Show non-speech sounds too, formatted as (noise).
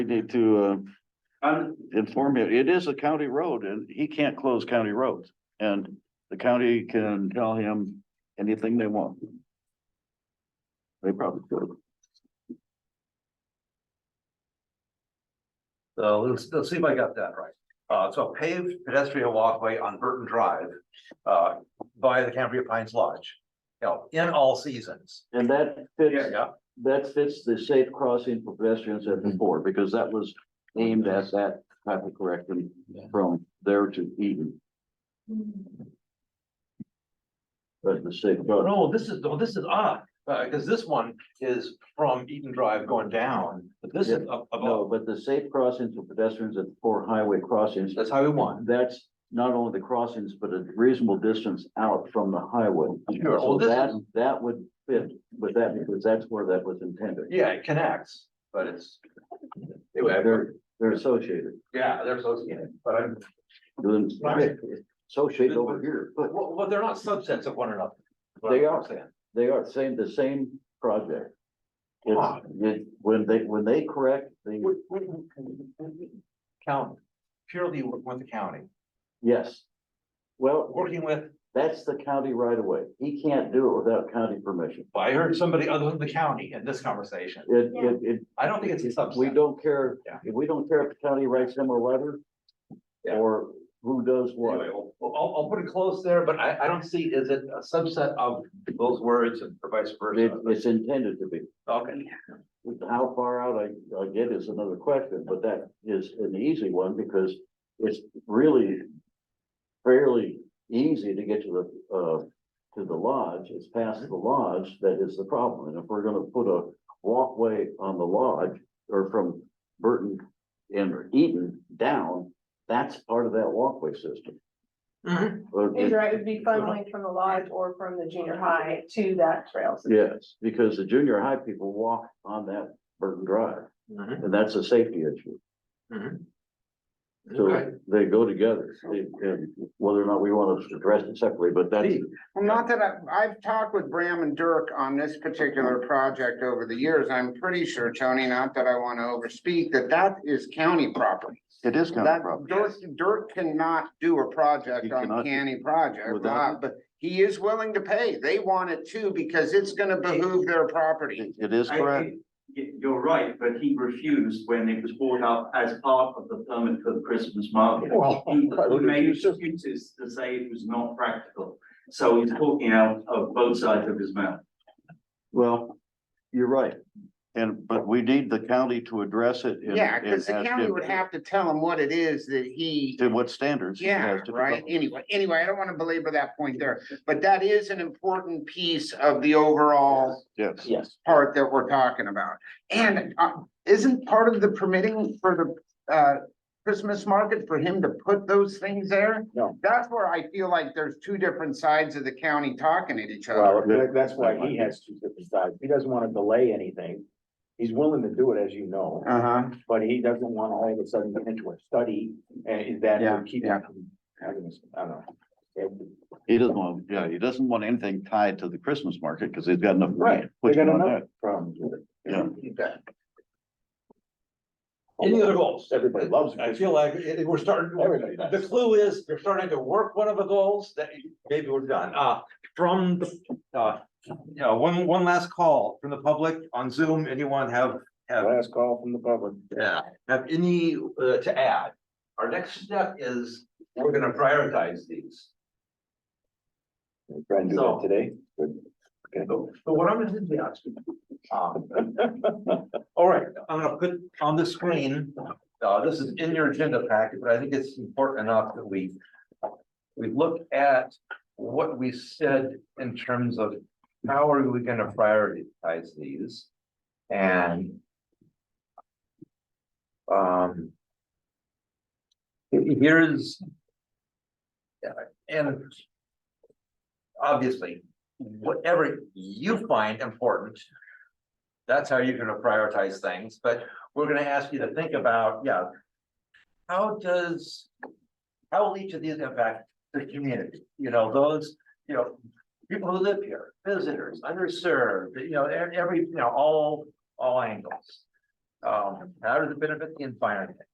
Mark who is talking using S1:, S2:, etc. S1: need to uh,
S2: I'm,
S1: inform you, it is a county road and he can't close county roads. And the county can tell him anything they want. They probably could.
S2: so let's, let's see if I got that right. Uh, so paved pedestrian walkway on Burton Drive, uh, by the Cambria Pines Lodge. You know, in all seasons.
S1: And that fits,
S2: Yeah,
S1: that fits the safe crossing for pedestrians at the board, because that was aimed at that type of correction from there to Eden. But the safe,
S2: Oh,
S1: road,
S2: no, this is, no, this is odd, uh, because this one is from Eaton Drive going down, but this is
S1: no,
S2: up above,
S1: but the safe crossings for pedestrians at the four highway crossings
S2: that's how we want.
S1: that's not only the crossings, but a reasonable distance out from the highway.
S2: Sure,
S1: So
S2: well, this
S1: that,
S2: is-
S1: that would fit with that, because that's where that was intended.
S2: Yeah, it connects, but it's. Anyway, I've
S1: They're,
S2: heard-
S1: they're associated.
S2: yeah, they're associated, but I'm,
S1: Then-
S2: Right.
S1: Associated over here, but
S2: well, well, they're not subsets of one another.
S1: They are.
S2: Saying.
S1: they are same, the same project.
S2: Ah.
S1: It's, it, when they, when they correct the,
S2: We, we, we- count purely with the county,
S1: yes. Well,
S2: working with,
S1: that's the county right away. He can't do it without county permission.
S2: I heard somebody other than the county in this conversation.
S1: It,
S3: Yeah.
S1: it, it
S2: I don't think it's a
S1: We
S2: subset.
S1: don't care,
S2: Yeah.
S1: if we don't care if the county writes them a letter.
S2: Yeah.
S1: Or who does
S2: Anyway,
S1: what.
S2: I'll, I'll, I'll put it close there, but I, I don't see, is it a subset of those words and or vice
S1: It,
S2: versa?
S1: it's intended to be.
S2: Okay,
S1: How far out I, I get is another question, but that is an easy one because it's really fairly easy to get to the, uh, to the lodge. It's past the lodge that is the problem. And if we're gonna put a walkway on the lodge or from Burton and Eaton down, that's part of that walkway system.
S2: Mhm.
S1: Or
S3: Is
S1: it-
S3: right, it'd be funneling from the lodge or from the junior high to that trail. system.
S1: Yes, because the junior high people walk on that Burton Drive,
S2: Mhm.
S1: and that's a safety issue.
S2: Mhm.
S1: So they go together, They- and whether or not we want to address it separately, but that's,
S4: Well, not that I, I've talked with Bram and Dirk on this particular project over the years. I'm pretty sure, Tony, not that I want to overspeak, that that is county property.
S1: it is kind of
S4: That,
S1: a problem.
S4: Dirk, Dirk cannot do a
S1: He
S4: project
S1: cannot
S4: on
S1: do-
S4: county project,
S1: without-
S4: uh, but he is willing to pay. They want it too because it's gonna behoove their property.
S1: It it is
S5: I-
S1: correct,
S5: y- You're right, but he refused when it was brought up as part of the permit for the Christmas market.
S2: Well,
S5: He
S2: I would
S5: made
S2: refuse to-
S5: excuses to say it was not practical. So he's talking out of both sides of his mouth.
S1: well, you're right. And, but we need the county to address it. and-
S4: Yeah, because the
S1: and ask
S4: county
S1: him
S4: would have to tell him what it is that he
S1: To what standards. he
S4: Yeah,
S1: has to
S4: right,
S1: develop.
S4: anyway, anyway, I don't wanna belabor that point there, but that is an important piece of the overall
S1: Yes,
S6: Yes,
S4: part that we're talking about. And, uh, isn't part of the permitting for the, uh, Christmas market for him to put those things there?
S6: No.
S4: That's where I feel like there's two different sides of the county talking at each other.
S6: well, that- that's why he has two different sides. He doesn't want to delay anything. He's willing to do it, as you know,
S4: Uh-huh,
S6: but he doesn't want to all of a sudden get into a study and that
S4: Yeah,
S6: would keep
S4: yeah.
S6: him from having this, I don't know. It-
S1: he doesn't want, yeah, he doesn't want anything tied to the Christmas market, because he's got enough. money
S6: Right,
S1: to
S6: they
S1: put
S6: got
S1: on
S6: enough
S1: that.
S6: problems with it.
S1: Yeah.
S2: Any other goals?
S6: Everybody loves
S2: I
S6: it.
S2: feel like it- it- we're starting,
S6: Everybody
S2: the
S6: does.
S2: clue is you're starting to work one of the goals that maybe we're done. Uh, from, the- uh, you know, one, one last call from the public on Zoom. Anyone have, have,
S6: Last call from the public.
S2: yeah, have any uh, to add? Our next step is we're gonna prioritize these.
S6: Trying to do
S2: So-
S6: that today.
S2: So so what I'm gonna do is ask you. um, (laughs) All right, I'm gonna put on the screen, uh, this is in your agenda packet, but I think it's important enough that we. We look at what we said in terms of how are we gonna prioritize these and. Um. Here's. yeah, And. Obviously, whatever you find important. That's how you're gonna prioritize things, but we're gonna ask you to think about, yeah. How does, how will each of these impact the community, you know, those, you know. People who live here, visitors, underserved, you know, e- every, you know, all, all angles. Um, how does it benefit the environment?